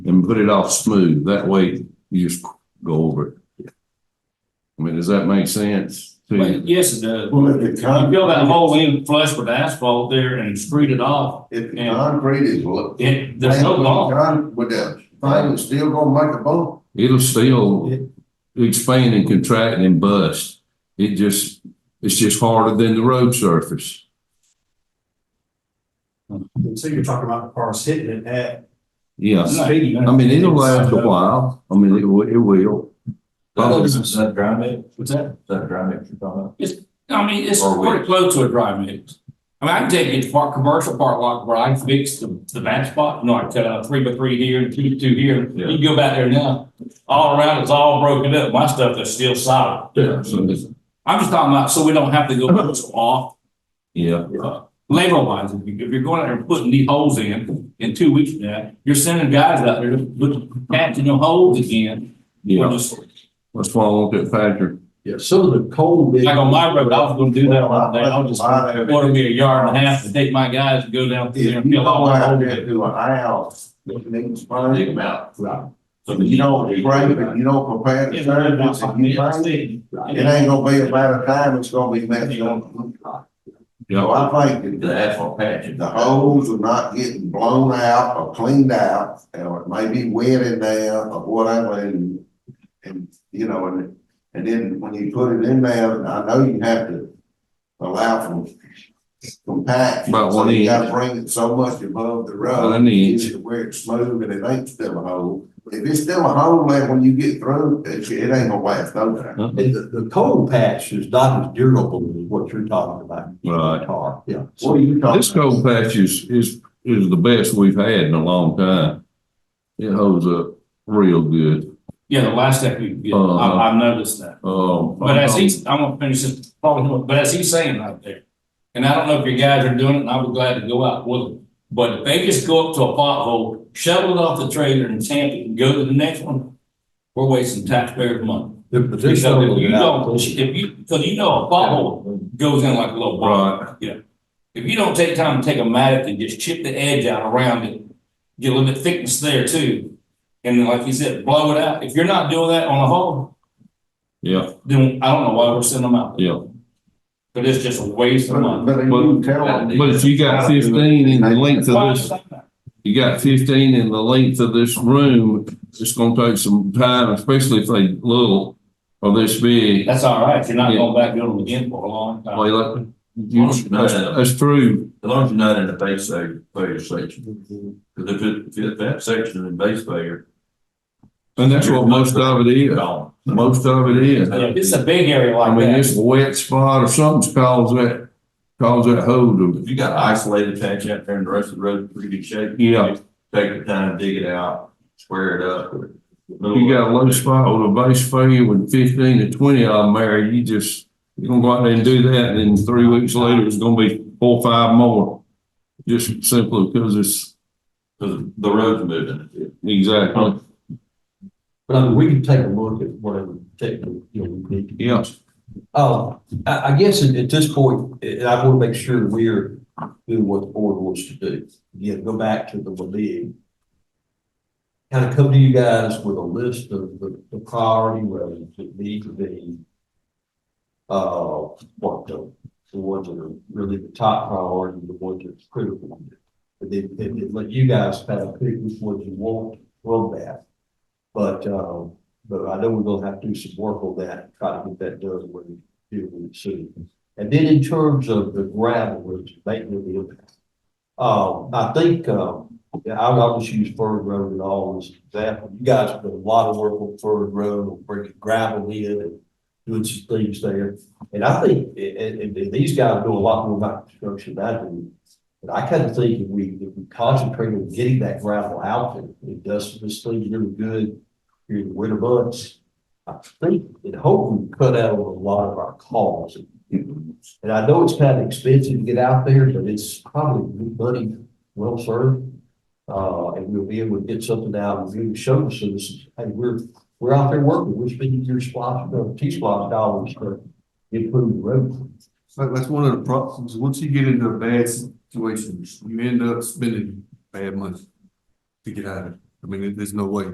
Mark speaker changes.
Speaker 1: put it off smooth. That way you just go over it. I mean, does that make sense? to you?
Speaker 2: But yes, it does.
Speaker 3: Well, if the
Speaker 2: You fill that
Speaker 3: concrete,
Speaker 2: hole in flush with asphalt there and screed it off,
Speaker 3: if the
Speaker 2: Yeah.
Speaker 3: concrete is what.
Speaker 2: it, there's no law.
Speaker 3: With the thing, it's still gonna make a bump.
Speaker 1: It'll still expand and contract and bust. It just, it's just harder than the road surface.
Speaker 4: So you're talking about the cars hitting it at
Speaker 1: Yes.
Speaker 4: speed.
Speaker 1: I mean, it'll last a while. I mean, it will, it will.
Speaker 5: Is that dry mix? Is
Speaker 2: What's that?
Speaker 5: that dry mix you're talking about?
Speaker 2: I mean, it's
Speaker 5: Or
Speaker 2: pretty
Speaker 5: we-
Speaker 2: close to a dry mix. I mean, I can take it to park, commercial park lot where I fixed the, the bad spot. No, I cut out three by three here and two by two here.
Speaker 1: Yeah.
Speaker 2: You go back there now, all around, it's all broken up. My stuff is still solid.
Speaker 1: Yeah, so it's-
Speaker 2: I'm just talking about, so we don't have to go push off,
Speaker 1: yeah,
Speaker 2: uh, labor wise. If you- if you're going out there and putting these holes in, in two weeks from now, you're sending guys out there with patching in them holes again.
Speaker 1: yeah.
Speaker 2: Just
Speaker 1: That's why I want that factor.
Speaker 4: Yeah, some of the cold bit.
Speaker 2: Like on my road, I was gonna do that one day, I was just
Speaker 3: Lot of it.
Speaker 2: order me a yard and a half to take my guys and go down
Speaker 3: If
Speaker 2: there
Speaker 3: you
Speaker 2: and fill
Speaker 3: go
Speaker 2: all that
Speaker 3: out
Speaker 2: hole
Speaker 3: there
Speaker 2: in.
Speaker 3: to an aisle, that needs
Speaker 5: Dig
Speaker 3: money
Speaker 5: 'em out.
Speaker 3: So you don't break it, you don't prepare the service, if you break it, it ain't gonna be a matter of time, it's gonna be messed up.
Speaker 1: Yeah.
Speaker 3: So I think
Speaker 5: The
Speaker 3: that
Speaker 5: asphalt patch.
Speaker 3: the holes are not getting blown out or cleaned out, or it may be wet in there or whatever, and, and, you know, and, and then when you put it in there, I know you have to allow for compaction.
Speaker 1: About
Speaker 3: So
Speaker 1: one
Speaker 3: You gotta
Speaker 1: inch.
Speaker 3: bring it so much above the road.
Speaker 1: One inch.
Speaker 3: get it Where it's smooth and it ain't still a hole. If it's still a hole, then when you get through, it, it ain't gonna last no time.
Speaker 4: And the, the cold patch is not as durable as what you're talking about.
Speaker 1: Right.
Speaker 4: Tar, yeah.
Speaker 3: What are you talking?
Speaker 1: This cold patch is, is, is the best we've had in a long time. It holds up real good.
Speaker 2: Yeah, the last step you get,
Speaker 1: Uh-huh.
Speaker 2: I, I've noticed that.
Speaker 1: Um.
Speaker 2: But as he's, I'm gonna finish this, thought here, but as he's saying out there, and I don't know if your guys are doing it, and I would glad to go out with them. But if they just go up to a pothole, shovel it off the trailer and tamp it and go to the next one, we're wasting taxpayers' money.
Speaker 4: The position.
Speaker 2: Because
Speaker 4: of
Speaker 2: if you
Speaker 4: the
Speaker 2: don't, if you, because you know a pothole goes in like a little ball.
Speaker 1: Right,
Speaker 2: If you don't take time to take a mattock and just chip the edge out around it, get a little bit thickness there too. And then, like you said, blow it out. If you're not doing that on a hole,
Speaker 1: yeah,
Speaker 2: then I don't know why we're sending them out.
Speaker 1: yeah.
Speaker 2: But it's just a waste of
Speaker 3: But,
Speaker 2: money.
Speaker 3: but you tell them.
Speaker 1: But if you got fifteen in the length
Speaker 2: Why
Speaker 1: of
Speaker 2: is
Speaker 1: this,
Speaker 2: that not?
Speaker 1: you got fifteen in the length of this room, it's gonna take some time, especially if they little or this big.
Speaker 2: That's all right. You're not
Speaker 1: Yeah.
Speaker 2: going back to them again for a long time.
Speaker 1: Well, like, you- that's, that's true,
Speaker 5: As long as you're not in a base failure, failure section. Because if it, if that section is in base failure.
Speaker 1: and that's what most of it is,
Speaker 5: Gone.
Speaker 1: most of it is.
Speaker 2: Yeah, If it's a big area
Speaker 1: I
Speaker 2: like
Speaker 1: mean,
Speaker 2: that,
Speaker 1: it's a wet spot or something's caused that, caused that hole to,
Speaker 5: If you got isolated patch out there and the rest of the road is pretty good shape.
Speaker 1: Yeah.
Speaker 5: Take the time, dig it out, square it up.
Speaker 1: you got a low spot with a base failure with fifteen to twenty of them there, you just, you're gonna go out there and do that, and then three weeks later, it's gonna be four, or five more. Just simply because it's,
Speaker 5: Because the road's moving.
Speaker 1: exactly,
Speaker 4: But I mean, we can take a look at whatever technical, you know, we need to.
Speaker 1: yeah.
Speaker 4: Uh, I, I guess at, at this point, and I want to make sure we're doing what the board wants to do. Again, go back to the league. Kind of come to you guys with a list of the, the priority roads that need to be uh, what the, the ones that are really the top priority, the ones that's critical. And then, and then let you guys kind of pick which ones you want from that. But, uh, but I know we're gonna have to do some work on that, try to get that done when we deal with it soon. And then in terms of the gravel, which may be impact. Um, I think, um, yeah, I would always use Ford Road and all as an example. You guys have done a lot of work on Ford Road, on bringing gravel in and doing some things there. And I think, and, and- and these guys know a lot more about construction than I do. But I kind of think if we, if we concentrate on getting that gravel out and it does this thing really good during the winter months, I think and hope we cut out on a lot of our calls. And I know it's kind of expensive to get out there, but it's probably good money well served. Uh, and we'll be able to get something out and really show the citizens, hey, we're, we're out there working, we're spending your splosh, uh, T-Splosh dollars to improve the road.
Speaker 6: That, that's one of the problems, once you get into a bad situation, you end up spending bad money to get out of it. I mean, there- there's no way.